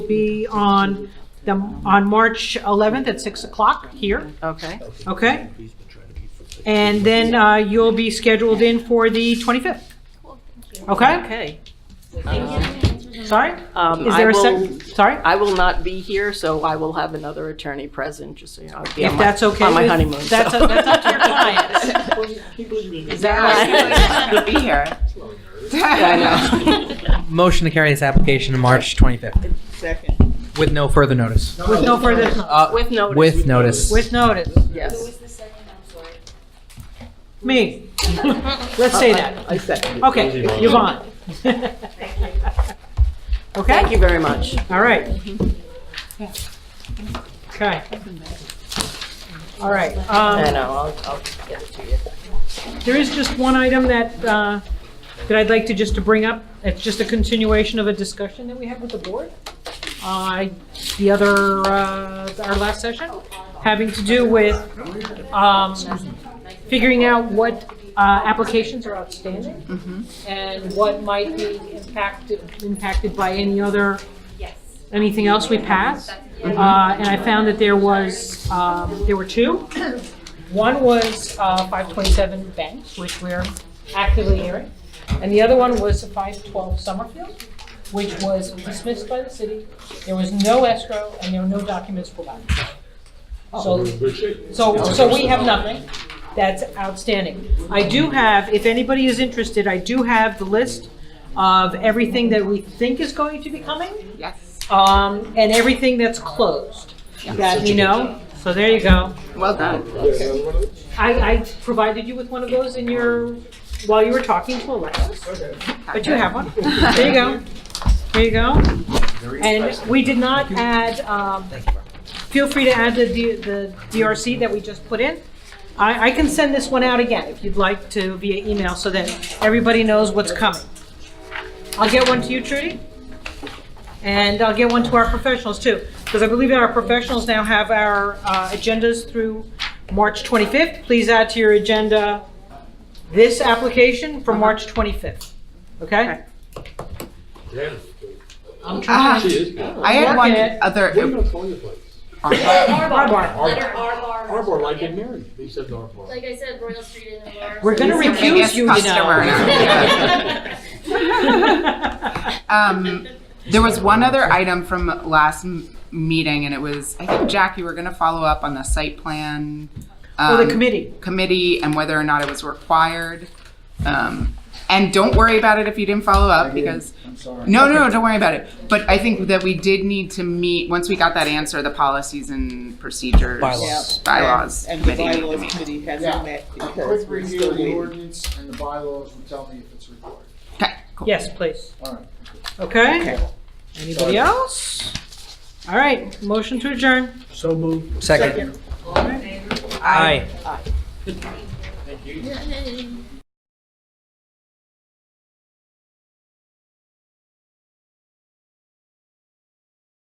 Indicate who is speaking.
Speaker 1: be on the, on March 11th at 6 o'clock here,
Speaker 2: Okay,
Speaker 1: okay? And then uh, you'll be scheduled in for the 25th. Okay?
Speaker 2: okay.
Speaker 1: Sorry?
Speaker 2: Um,
Speaker 1: Is
Speaker 2: I
Speaker 1: there a
Speaker 2: will,
Speaker 1: sec, sorry?
Speaker 2: I will not be here, so I will have another attorney present, just so you know. I'll be on
Speaker 1: If
Speaker 2: my-
Speaker 1: that's okay
Speaker 2: On my
Speaker 1: with-
Speaker 2: honeymoon, so.
Speaker 1: that's- that's up to your clients.
Speaker 2: Is that right?
Speaker 3: be here.
Speaker 2: Yeah,
Speaker 4: Motion to carry this application to March 25th
Speaker 3: Second.
Speaker 4: with no further notice.
Speaker 1: With no further,
Speaker 2: I know.
Speaker 4: Uh,
Speaker 2: With notice.
Speaker 4: With notice.
Speaker 1: with notice.
Speaker 2: Yes.
Speaker 1: Me. Let's say that.
Speaker 3: I second.
Speaker 1: Okay, Yvonne. Okay?
Speaker 2: Thank you very much.
Speaker 1: All right. Okay. All right. um,
Speaker 2: I know, I'll, I'll get it to you.
Speaker 1: There is just one item that, uh, that I'd like to just to bring up. It's just a continuation of a discussion that we had with the board. Uh, The other, uh, our last session, having to do with um, figuring out what uh, applications are outstanding and what might be impacted, impacted by any other, anything else we pass. Uh, And I found that there was, um, there were two. One was uh, 527 Bank, which we're actively hearing, and the other one was 512 Summerfield, which was dismissed by the city. There was no escrow, and there were no documents provided. So, so, so we have nothing. That's outstanding. I do have, if anybody is interested, I do have the list of everything that we think is going to be coming
Speaker 3: Yes.
Speaker 1: um, and everything that's closed that we know. So there you go.
Speaker 3: Well done.
Speaker 1: I, I provided you with one of those in your, while you were talking to Alexis, but you have one. There you go. There you go. And we did not add, um, feel free to add the, D- the DRC that we just put in. I, I can send this one out again if you'd like to via email so that everybody knows what's coming. I'll get one to you, Trudy. And I'll get one to our professionals too, because I believe our professionals now have our uh, agendas through March 25th. Please add to your agenda this application for March 25th, okay?
Speaker 5: Yeah.
Speaker 1: I'm trying
Speaker 3: Ah,
Speaker 1: to.
Speaker 5: She is good.
Speaker 3: I had one
Speaker 1: Rocket.
Speaker 5: What do you
Speaker 3: other,
Speaker 5: not call your place?
Speaker 1: Arbar.
Speaker 6: Letter R bar.
Speaker 5: Arbor, like in Mary. He said Arbor.
Speaker 6: Like I said, Royal Street and Aurora.
Speaker 1: We're gonna
Speaker 3: He's the
Speaker 1: recuse
Speaker 3: biggest
Speaker 1: you, you
Speaker 3: customer
Speaker 1: know.
Speaker 3: um, there was one other item from last m- meeting and it was, I think Jack, you were gonna follow up on the site plan.
Speaker 1: For
Speaker 7: Oh,
Speaker 3: um,
Speaker 1: the committee.
Speaker 3: Committee and whether or not it was required. Um, and don't worry about it if you didn't follow up because
Speaker 8: I'm sorry.
Speaker 3: No, no, no, don't worry about it. But I think that we did need to meet, once we got that answer, the policies and procedures.
Speaker 4: Bylaws.
Speaker 3: Bylaws
Speaker 7: And the
Speaker 3: committee. needed to
Speaker 7: bylaws
Speaker 3: meet.
Speaker 7: committee
Speaker 8: Yeah.
Speaker 7: hasn't met because
Speaker 8: Quick
Speaker 7: we're
Speaker 8: review
Speaker 7: still
Speaker 8: of the
Speaker 7: waiting.
Speaker 8: ordinance and the bylaws will tell me if it's required.
Speaker 3: Okay, cool.
Speaker 1: Yes, please.
Speaker 8: All right.
Speaker 1: Okay?
Speaker 7: Okay.
Speaker 1: Anybody else? All right, motion to adjourn.
Speaker 8: So moved.
Speaker 4: Second. Aye.
Speaker 6: Hey.